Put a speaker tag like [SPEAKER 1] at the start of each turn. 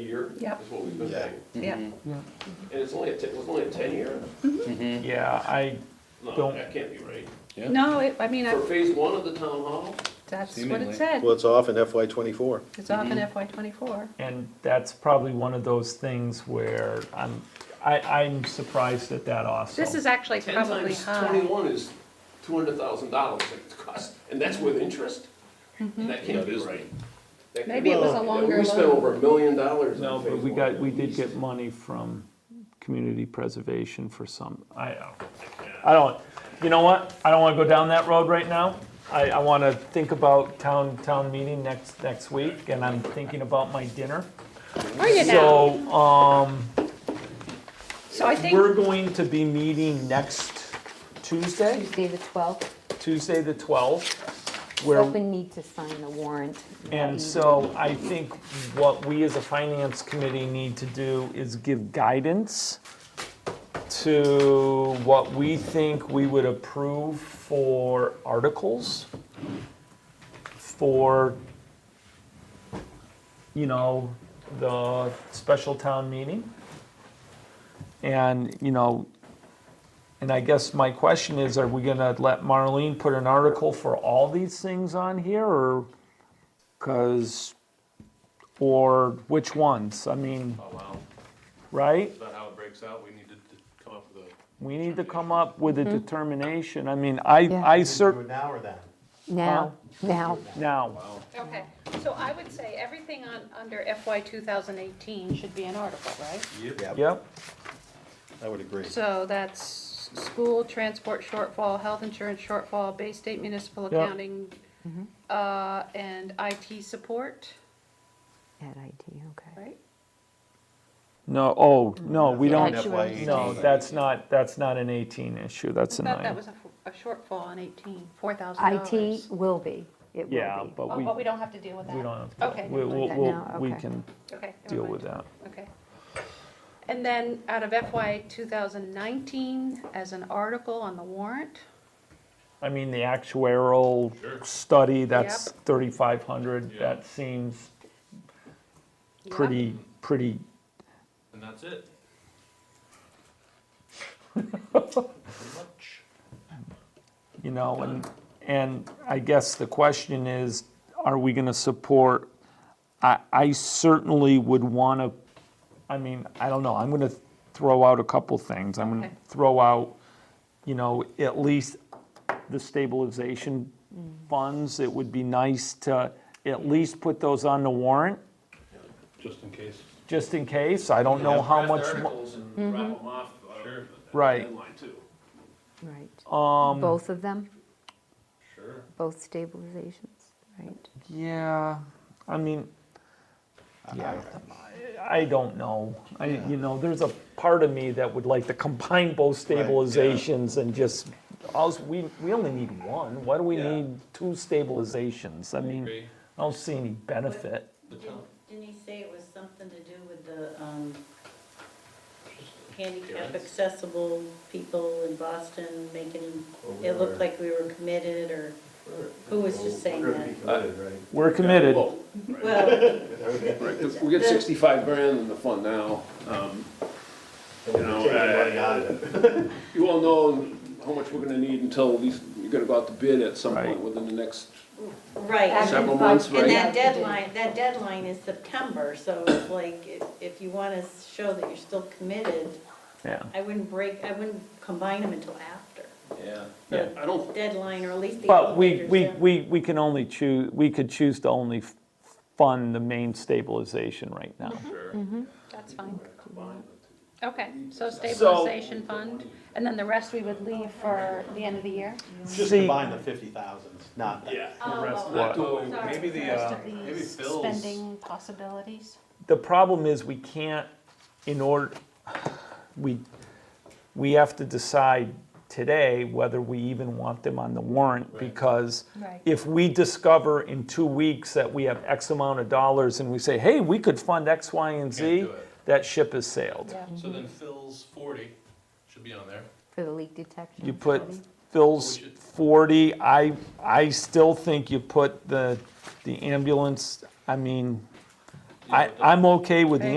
[SPEAKER 1] year.
[SPEAKER 2] Yep.
[SPEAKER 1] Is what we've been
[SPEAKER 3] Yeah.
[SPEAKER 1] paying.
[SPEAKER 2] Yeah.
[SPEAKER 1] And it's only a, ten- it was only a ten-year?
[SPEAKER 4] Yeah, I,
[SPEAKER 1] No,
[SPEAKER 4] Don't-
[SPEAKER 1] that can't be right.
[SPEAKER 2] No, it, I mean, I,
[SPEAKER 1] For phase one of the town hall,
[SPEAKER 2] that's what
[SPEAKER 5] Seemingly.
[SPEAKER 2] it said.
[SPEAKER 3] Well, it's off in FY twenty-four.
[SPEAKER 2] It's
[SPEAKER 1] Mm-hmm.
[SPEAKER 2] off in FY twenty-four.
[SPEAKER 4] and that's probably one of those things where I'm, I, I'm surprised at that also.
[SPEAKER 2] This is actually
[SPEAKER 1] ten
[SPEAKER 2] probably
[SPEAKER 1] times
[SPEAKER 2] high.
[SPEAKER 1] twenty-one is two hundred thousand dollars it costs, and that's with interest? That can't be right. That can't-
[SPEAKER 2] Mm-hmm. Maybe it was a longer
[SPEAKER 1] We spent
[SPEAKER 2] loan.
[SPEAKER 1] over a million dollars
[SPEAKER 4] No,
[SPEAKER 1] on phase
[SPEAKER 4] but we
[SPEAKER 1] one
[SPEAKER 4] got,
[SPEAKER 1] at
[SPEAKER 4] we did
[SPEAKER 1] least.
[SPEAKER 4] get money from community preservation for some, I, I don't, you know what? I don't wanna go down that road right now. I, I wanna think about town, town meeting next, next week, and I'm thinking about my dinner.
[SPEAKER 2] Are you now?
[SPEAKER 4] So, um,
[SPEAKER 2] So I
[SPEAKER 4] we're
[SPEAKER 2] think,
[SPEAKER 4] going to be meeting next Tuesday,
[SPEAKER 6] Tuesday, the 12th,
[SPEAKER 4] Tuesday the twelfth. Where,
[SPEAKER 6] selectmen need to sign the warrant.
[SPEAKER 4] And so I think what we as a finance committee need to do is give guidance to what we think we would approve for articles, for, you know, the special town meeting. And, you know, and I guess my question is, are we gonna let Marlene put an article for all these things on here, or? Cause, or which ones? I mean,
[SPEAKER 7] Oh, wow.
[SPEAKER 4] right?
[SPEAKER 7] Is that how it breaks out? We need to d- come up with a,
[SPEAKER 4] We need to come up with a determination. I mean, I,
[SPEAKER 6] Mm-hmm. Yeah.
[SPEAKER 4] I cer,
[SPEAKER 8] Do it now or then?
[SPEAKER 6] Now, now,
[SPEAKER 4] now,
[SPEAKER 2] okay, so I would say everything on, under FY two thousand eighteen should be an article, right?
[SPEAKER 4] yep,
[SPEAKER 3] I would agree.
[SPEAKER 2] So that's school, transport shortfall, health insurance shortfall, Bay State municipal
[SPEAKER 4] Yeah.
[SPEAKER 2] accounting,
[SPEAKER 1] Mm-hmm.
[SPEAKER 2] uh, and IT support,
[SPEAKER 6] at IT, okay.
[SPEAKER 2] right?
[SPEAKER 4] no, oh, no, we
[SPEAKER 6] That's
[SPEAKER 4] don't,
[SPEAKER 6] what I'm saying.
[SPEAKER 4] no, that's not, that's not an eighteen issue, that's
[SPEAKER 2] I
[SPEAKER 4] a
[SPEAKER 2] thought that
[SPEAKER 4] nine.
[SPEAKER 2] was a, f- a shortfall on eighteen, four thousand dollars.
[SPEAKER 6] IT will be, it will be.
[SPEAKER 4] Yeah, but
[SPEAKER 2] Oh,
[SPEAKER 4] we,
[SPEAKER 2] but we
[SPEAKER 4] we
[SPEAKER 2] don't have to deal with that?
[SPEAKER 4] don't have to,
[SPEAKER 2] Okay.
[SPEAKER 4] we,
[SPEAKER 2] never mind.
[SPEAKER 4] we'll,
[SPEAKER 6] that
[SPEAKER 4] we'll-
[SPEAKER 6] now,
[SPEAKER 4] we
[SPEAKER 6] okay.
[SPEAKER 4] can
[SPEAKER 2] Okay. never
[SPEAKER 4] deal
[SPEAKER 2] mind.
[SPEAKER 4] with that.
[SPEAKER 2] Okay. And then out of FY 2019, as an article on the warrant,
[SPEAKER 4] I mean, the actuarial study, that's
[SPEAKER 2] Yep.
[SPEAKER 4] thirty-five hundred,
[SPEAKER 7] Yeah.
[SPEAKER 4] that seems
[SPEAKER 2] Yeah.
[SPEAKER 4] pretty, pretty
[SPEAKER 7] and that's it. Pretty much.
[SPEAKER 4] you know, and, and I guess the question is, are we gonna support? I, I certainly would wanna, I mean, I don't know, I'm gonna throw out a couple things. I'm gonna
[SPEAKER 2] Okay.
[SPEAKER 4] throw out, you know, at least the stabilization funds. It would be nice to at least put those on the warrant,
[SPEAKER 7] Just in case.
[SPEAKER 4] just in case. I don't know how much.
[SPEAKER 1] Draft
[SPEAKER 4] mo-
[SPEAKER 1] articles and
[SPEAKER 2] Mm-hmm.
[SPEAKER 1] wrap them off, uh,
[SPEAKER 7] Sure.
[SPEAKER 4] Right.
[SPEAKER 1] deadline too.
[SPEAKER 6] Right.
[SPEAKER 4] um,
[SPEAKER 6] Both of them,
[SPEAKER 7] Sure.
[SPEAKER 6] both stabilizations, right?
[SPEAKER 4] Yeah, I mean, yeah, I I don't know. I, you know, there's a part of me that would like to combine both stabilizations and just, alls, we, we only need one. Why do we
[SPEAKER 7] Yeah.
[SPEAKER 4] need two stabilizations? I mean,
[SPEAKER 7] agree.
[SPEAKER 4] I don't see any benefit.
[SPEAKER 7] The town-
[SPEAKER 9] Didn't he say it was something to do with the um, handicap accessible people in Boston making, it looked like we were committed or who was just saying
[SPEAKER 8] We're gonna be
[SPEAKER 9] that?
[SPEAKER 8] committed, right?
[SPEAKER 4] We're committed.
[SPEAKER 1] Well,
[SPEAKER 9] Well,
[SPEAKER 1] right, 'cause we get sixty-five grand in the fund now, um,
[SPEAKER 8] And we're
[SPEAKER 1] You know,
[SPEAKER 8] taking money
[SPEAKER 1] uh,
[SPEAKER 8] out of it.
[SPEAKER 1] you all know how much we're gonna need until these, you're gonna go out to bid at some
[SPEAKER 4] Right.
[SPEAKER 1] point within the next
[SPEAKER 9] right.
[SPEAKER 1] several months, right?
[SPEAKER 9] And that deadline, that deadline is September, so it's like, if- if you want to show that you're still committed,
[SPEAKER 4] Yeah,
[SPEAKER 9] I wouldn't break, I wouldn't combine them until after
[SPEAKER 1] Yeah.
[SPEAKER 4] Yeah.
[SPEAKER 1] I don't,
[SPEAKER 9] deadline, or at least the.
[SPEAKER 4] but we,
[SPEAKER 9] elevators
[SPEAKER 4] we,
[SPEAKER 9] down.
[SPEAKER 4] we, we can only choose, we could choose to only f- fund the main stabilization right now.
[SPEAKER 7] Sure.
[SPEAKER 2] that's fine.
[SPEAKER 1] combine the two.
[SPEAKER 2] Okay, so stabilization fund, and then the rest we would leave for the end of the year?
[SPEAKER 8] Just
[SPEAKER 4] See-
[SPEAKER 8] combine the fifty thousands, not that.
[SPEAKER 7] Yeah.
[SPEAKER 4] What?
[SPEAKER 7] Oh, maybe the, uh, maybe Phil's.
[SPEAKER 2] Spending possibilities?
[SPEAKER 4] the problem is we can't, in order, we, we have to decide today whether we even want them on the warrant because
[SPEAKER 2] Right.
[SPEAKER 4] if we discover in two weeks that we have X amount of dollars and we say, hey, we could fund X, Y, and Z,
[SPEAKER 7] Can't do it.
[SPEAKER 4] that ship has sailed.
[SPEAKER 7] So then Phil's forty should be on there.
[SPEAKER 6] For the leak detection.
[SPEAKER 4] You put
[SPEAKER 6] study.
[SPEAKER 4] Phil's
[SPEAKER 7] We should-
[SPEAKER 4] forty, I, I still think you put the, the ambulance, I mean, I, I'm okay with the
[SPEAKER 2] Right.